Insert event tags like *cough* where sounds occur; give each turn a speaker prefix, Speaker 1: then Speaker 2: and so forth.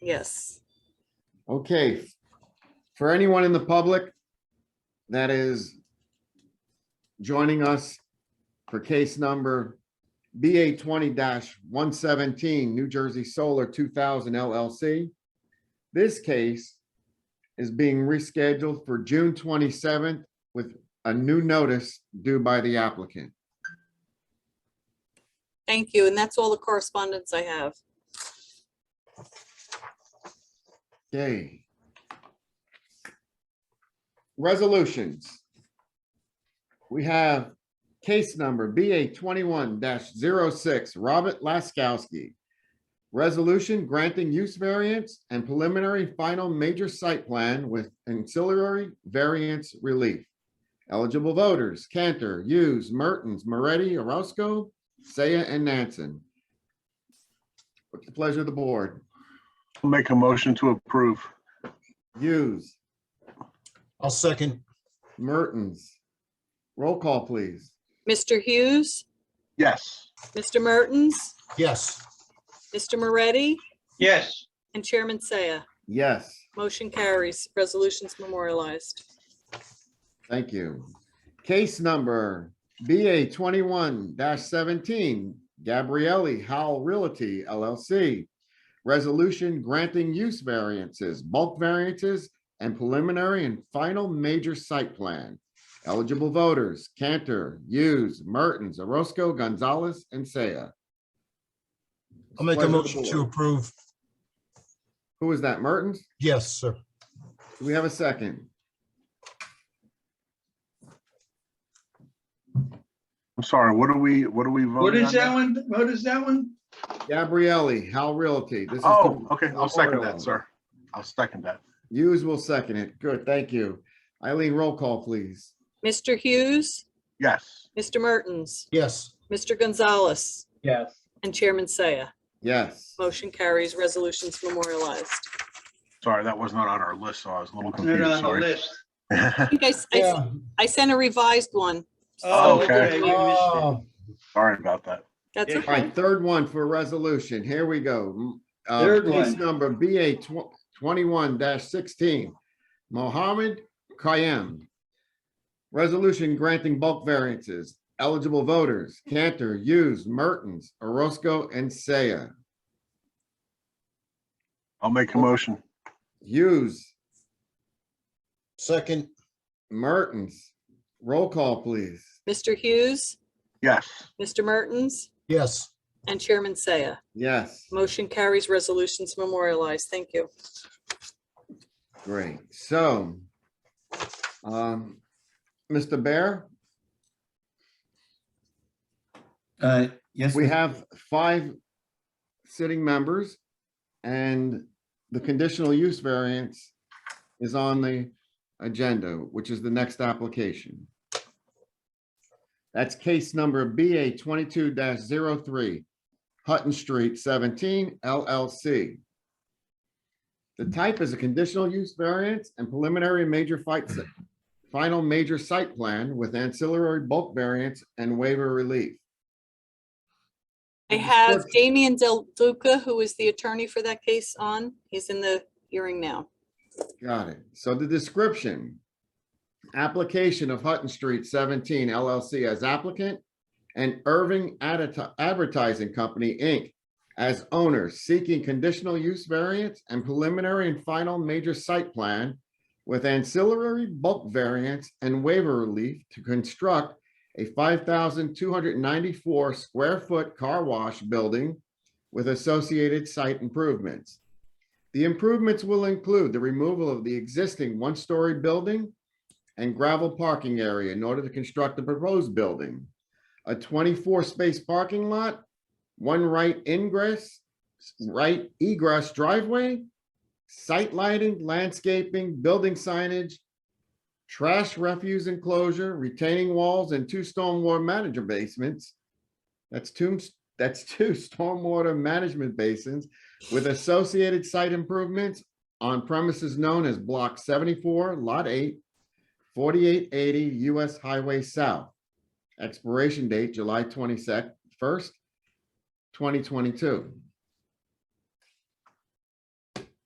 Speaker 1: Yes.
Speaker 2: Okay. For anyone in the public that is joining us for case number BA twenty one seventeen, New Jersey Solar two thousand LLC. This case is being rescheduled for June twenty-seventh with a new notice due by the applicant.
Speaker 1: Thank you. And that's all the correspondence I have.
Speaker 2: Okay. Resolutions. We have case number BA twenty-one 6 Robert Laskowski. Resolution granting use variance and preliminary final major site plan with ancillary variance relief. Eligible voters, Cantor, Hughes, Mertens, Moretti, Orozco, Saya, and Nansen. What's the pleasure of the board?
Speaker 3: I'll Make a motion to approve.
Speaker 2: Hughes,
Speaker 4: I'll second.
Speaker 2: Mertens. Roll call, please.
Speaker 1: Mr. Hughes,
Speaker 3: Yes.
Speaker 1: Mr. Mertens,
Speaker 4: Yes,
Speaker 1: Mr. Moretti,
Speaker 5: yes,
Speaker 1: and Chairman Saya.
Speaker 2: Yes,
Speaker 1: Motion carries. Resolutions memorialized.
Speaker 2: thank you. Case number BA twenty-one seventeen, Gabrielli Howell Realty LLC. Resolution granting use variances, bulk variances, and preliminary and final major site plan. Eligible voters, Cantor, Hughes, Mertens, Orozco, Gonzalez, and Saya.
Speaker 4: I'll make a
Speaker 2: Pleasure of the
Speaker 4: motion to
Speaker 2: board.
Speaker 4: approve.
Speaker 2: Who is that, Mertens?
Speaker 4: Yes, sir.
Speaker 2: Do we have a second?
Speaker 3: I'm sorry, what are we, what are we voting on?
Speaker 5: what is that
Speaker 3: now?
Speaker 5: one, what is that one?
Speaker 2: Gabrielli, Hal Realty. This is
Speaker 3: Oh,
Speaker 2: the-
Speaker 3: okay, I'll second that, sir. I'll second that.
Speaker 2: Hughes will second it. Good, thank you. Eileen, roll call, please.
Speaker 1: Mr. Hughes,
Speaker 3: Yes.
Speaker 1: Mr. Mertens,
Speaker 4: Yes,
Speaker 1: Mr. Gonzalez,
Speaker 5: Yes.
Speaker 1: and Chairman Saya.
Speaker 2: Yes,
Speaker 1: Motion carries. Resolutions memorialized.
Speaker 3: Sorry, that was not on our list, so I was a little
Speaker 5: Not
Speaker 3: confused,
Speaker 5: on the
Speaker 3: sorry.
Speaker 5: list.
Speaker 1: I think I, s- I s-
Speaker 4: yeah.
Speaker 1: I sent a revised one.
Speaker 5: Oh,
Speaker 3: Okay.
Speaker 5: okay. we missed it.
Speaker 4: Oh,
Speaker 3: *laughs* Sorry about that.
Speaker 1: That's
Speaker 5: Yeah.
Speaker 2: all
Speaker 1: okay.
Speaker 2: right, third one for resolution. Here we go. Uh,
Speaker 5: Third
Speaker 2: Case
Speaker 5: one.
Speaker 2: number BA tw- twenty-one sixteen, Mohammed Kayem. Resolution granting bulk variances. Eligible voters, Cantor, Hughes, Mertens, Orozco, and Saya.
Speaker 3: I'll make a motion.
Speaker 2: Hughes,
Speaker 4: Second,
Speaker 2: Mertens, roll call, please.
Speaker 1: Mr. Hughes,
Speaker 3: Yes.
Speaker 1: Mr. Mertens,
Speaker 4: yes,
Speaker 1: and Chairman Saya.
Speaker 2: Yes.
Speaker 1: Motion carries. Resolutions memorialized. Thank you.
Speaker 2: Great, so, um, Mr. Bear,
Speaker 6: Uh, yes,
Speaker 2: we
Speaker 6: Mr.
Speaker 2: have five sitting members and the conditional use variance is on the agenda, which is the next application. That's case number BA twenty-two 3 Hutton Street seventeen LLC. The type is a conditional use variance and preliminary major fight, final major site plan with ancillary bulk variance and waiver relief.
Speaker 1: I
Speaker 2: Mr.
Speaker 1: have
Speaker 2: Schwartz.
Speaker 1: Damian Del Duca, who is the attorney for that case on. He's in the hearing now.
Speaker 2: Got it. So the description. Application of Hutton Street seventeen LLC as applicant and Irving Adverti- Advertising Company, Inc. as owner seeking conditional use variance and preliminary and final major site plan with ancillary bulk variance and waiver relief to construct a five thousand two hundred ninety-four square foot car wash building with associated site improvements. The improvements will include the removal of the existing one-story building and gravel parking area in order to construct the proposed building. A twenty-four space parking lot, one right ingress, right egress driveway, site lighting, landscaping, building signage, trash refuse enclosure, retaining walls, and two stormwater manager basements. That's two, that's two *laughs* stormwater management basins with associated site improvements on premises known as Block 74, Lot 8, 4880 US Highway South. Expiration date July 22nd, 1st, 2022.